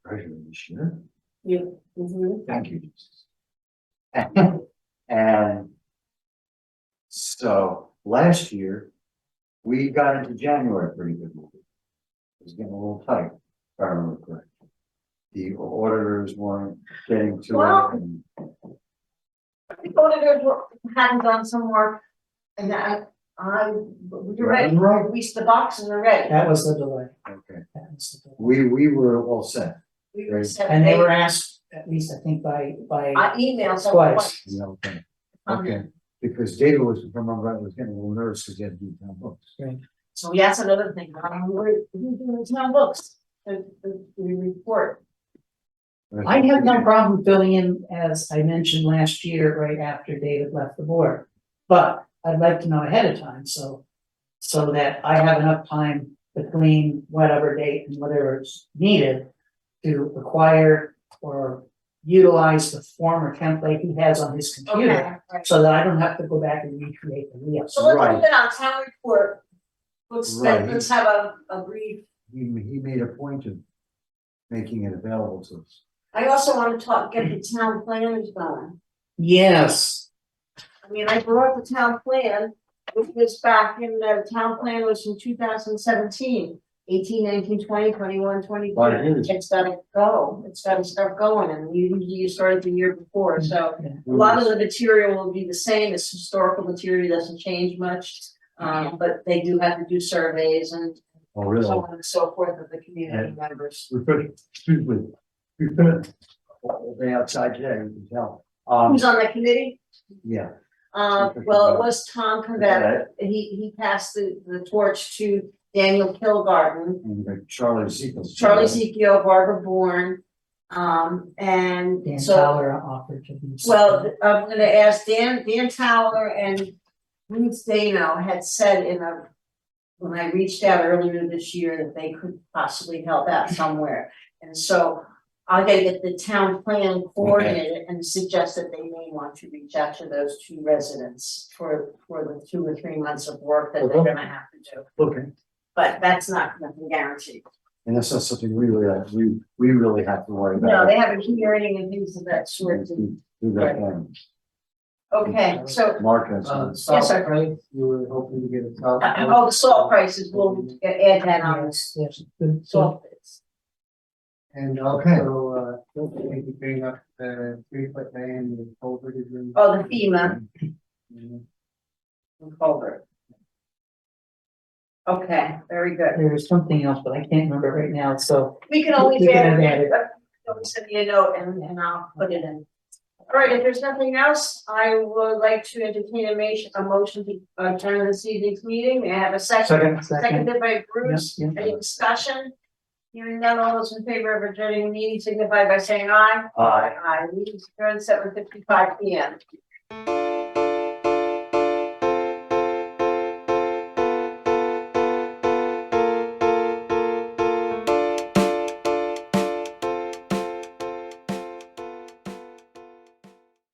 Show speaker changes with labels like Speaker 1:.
Speaker 1: treasurer this year.
Speaker 2: Mhm.
Speaker 1: Thank you, Jesus. And so last year, we got into January pretty good. with It It was getting a little tight, if I remember correctly. The auditors weren't getting to
Speaker 2: Well-
Speaker 1: it and
Speaker 2: I think auditors were- hadn't done some work and I, I, we're ready,
Speaker 1: Right.
Speaker 2: we, the boxes are ready.
Speaker 3: That was the delay.
Speaker 1: Okay,
Speaker 3: That was the delay.
Speaker 1: we, we were all set,
Speaker 2: We were sent
Speaker 3: And they
Speaker 2: a-
Speaker 3: were asked, at least I think by,
Speaker 2: I
Speaker 3: by,
Speaker 2: emailed someone.
Speaker 3: Twice.
Speaker 1: you know, okay.
Speaker 2: on it.
Speaker 1: Okay, because David was, if I remember, right, was getting a little nervous because he had to do town books.
Speaker 2: So that's another thing, um, we're, we're doing the town books, the, the, the report.
Speaker 3: I have no problem filling in, as I mentioned last year, right after David left the board. But I'd like to know ahead of time, so, so that I have enough time between whatever date and whatever's needed to acquire or utilize the former template he has on his computer,
Speaker 2: right.
Speaker 3: so that I don't have to go back and recreate the wheel.
Speaker 2: So let's
Speaker 1: Right.
Speaker 2: move it on, town report. Let's, let-
Speaker 1: Right.
Speaker 2: let's have a, a brief,
Speaker 1: He, he made a point of making it available to us.
Speaker 2: I also wanna talk, get the town planners going.
Speaker 3: Yes,
Speaker 2: I mean, I brought the town plan, which was back in, the town plan was from 2017, 18, 19, 20, 21, 22.
Speaker 1: But it is.
Speaker 2: It's gotta go, it's gotta start going, and you, you started the year before, so a lot of the material will be the same, it's historical material, doesn't change much. Um, but they do have to do surveys and
Speaker 1: Oh,
Speaker 2: so
Speaker 1: really?
Speaker 2: on and so forth of the community members.
Speaker 1: We're pretty, excuse me, we've been all day outside today, you can tell. Um,
Speaker 2: Who's on the committee?
Speaker 1: yeah.
Speaker 2: Um, well, it was Tom Cavett, he, he passed the, the torch to Daniel Kilgarden,
Speaker 1: And uh, Charlie Seacles.
Speaker 2: Charlie Zekio, Barbara Bourne. Um,
Speaker 3: Dan
Speaker 2: and so,
Speaker 3: Fowler offered to be.
Speaker 2: well, th- I'm gonna ask Dan, Dan Towler and Ruth Dano had said in a. When I reached out earlier this year that they could possibly help out somewhere, and so. I gotta get the town plan coordinated and suggest that they may want to reach out to those two residents for, for the two or three months of work that they're
Speaker 1: Okay.
Speaker 2: gonna have to do.
Speaker 1: Okay,
Speaker 2: But that's not nothing guaranteed.
Speaker 1: and that's not something we really, have- we, we really have to worry
Speaker 2: No,
Speaker 1: about.
Speaker 2: they have a hearing and things of that sort.
Speaker 1: Do that thing.
Speaker 2: Okay, so,
Speaker 1: Mark has.
Speaker 4: Uh,
Speaker 2: Yes, sir.
Speaker 4: salt price, you were hoping to get a salt.
Speaker 2: uh, oh, the salt prices, we'll add that on, the
Speaker 3: Yes, yes, good, so,
Speaker 2: salt. bids.
Speaker 4: And
Speaker 1: Okay.
Speaker 4: also, uh, we could bring up the three foot man, the culvert is in.
Speaker 2: Oh, the FEMA
Speaker 4: Mhm.
Speaker 2: and culvert. Okay, very good.
Speaker 3: there was something else, but I can't remember right now, so.
Speaker 2: We can always
Speaker 3: We
Speaker 2: add,
Speaker 3: can
Speaker 2: it.
Speaker 3: add it.
Speaker 2: Don't send me a note and, and I'll put it in. All right, if there's nothing else, I would like to entertain a motion, a motion to adjourn this evening's meeting. May I have a
Speaker 1: Second,
Speaker 2: second? Seconded by Bruce.
Speaker 3: Yep,
Speaker 2: Any discussion? Hearing none, all those in favor of adjourning the meeting signify by saying aye.
Speaker 1: aye.
Speaker 2: Aye, meeting's adjourned seven fifty-five P M.